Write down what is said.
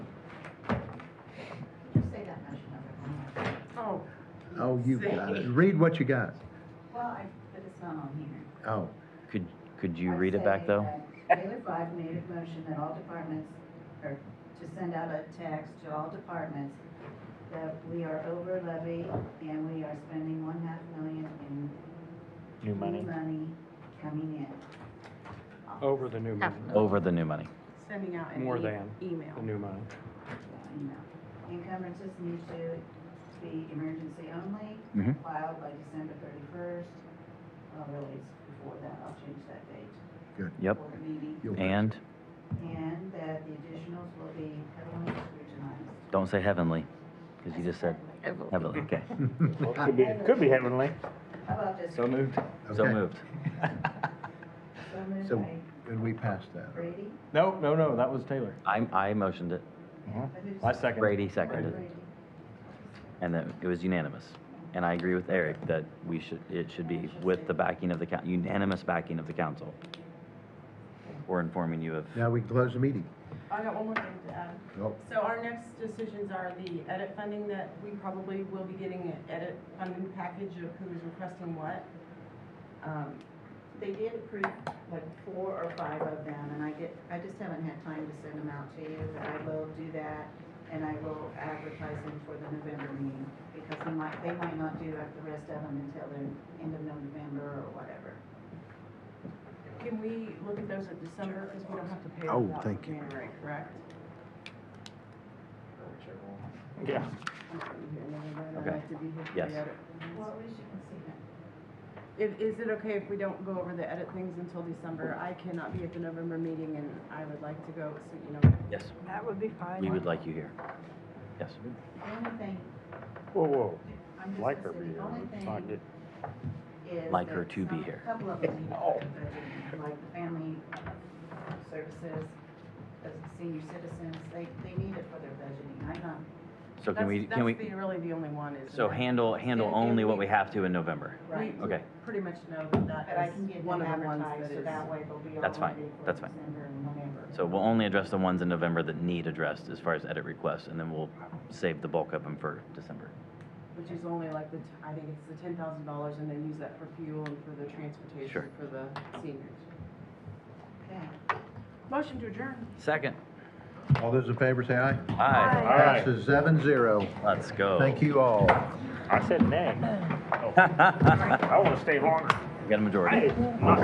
Oh, you got it. Read what you got. Well, I, but it's not on here. Oh, Could, could you I read it back say though? that Taylor Five made a motion that all departments, or to send out a text to all departments that we are over levy and we are spending one half million in. New money. money coming in. Over the new money, Over the new money. Sending out an More e- than. email. the new money. You know, Encumbrances need to be emergency only, Mhm. filed by December thirty-first. Well, really, it's before that, I'll change that date. Yep. for the meeting. you'll. And And that the additionals will be heavily scrutinized. don't say heavenly, because you just said heavenly. Okay. Could be, could be heavenly. How about this? So moved. So Okay. moved. So moved So- by And we passed that. Brady, No, no, no, that was Taylor. I, I motioned it. Mm-hmm. but who's- I second. Brady seconded it. Brady. And then it was unanimous. And I agree with Eric that we should, it should be with the backing of the, coun- unanimous backing of the council. We're informing you of, Now we can close the meeting. I got one more thing to add. Nope. So our next decisions are the edit funding that we probably will be getting an edit funding package of who is requesting what. Um, They did approve like four or five of them, and I get, I just haven't had time to send them out to you. I will do that, and I will advertise them for the November meeting, because they might, they might not do like the rest of them until the end of November or whatever. Can we look at those at December, because we don't have to pay Oh, them out in thank you. January, correct? Yeah. Okay. Yes. Well, we should consider. Is, is it okay if we don't go over the edit things until December? I cannot be at the November meeting, and I would like to go, so, you know, yes, That would be fine. we would like you here. Yes. The only thing, Whoa, whoa. I'm just Like gonna her say, being the only thing. not get is Like her that to be some- here. Couple of them, Oh. No. like family services, as senior citizens, they, they need it for their budgeting. I'm not, So can we, that's, can that's we, the, really the only one is. so that handle, handle Yeah, only can what we- we have to in November. right, we- Okay, Pretty much know that but I that can is get one them of the ones that advertised, so is. that way they'll be all That's fine. ready for That's fine. December and whenever. so we'll only address the ones in November that need addressed as far as edit requests, and then we'll save the bulk of them for December. Which is only like the, t- I think it's the ten thousand dollars and then use that for fuel and for the Sure. transportation for the seniors. Okay. Motion to adjourn. Second. All those in favor say aye. Hi. All right. Passes seven zero. Let's go. Thank you all. I said nay. Oh, Got I want to stay longer. a majority. I, not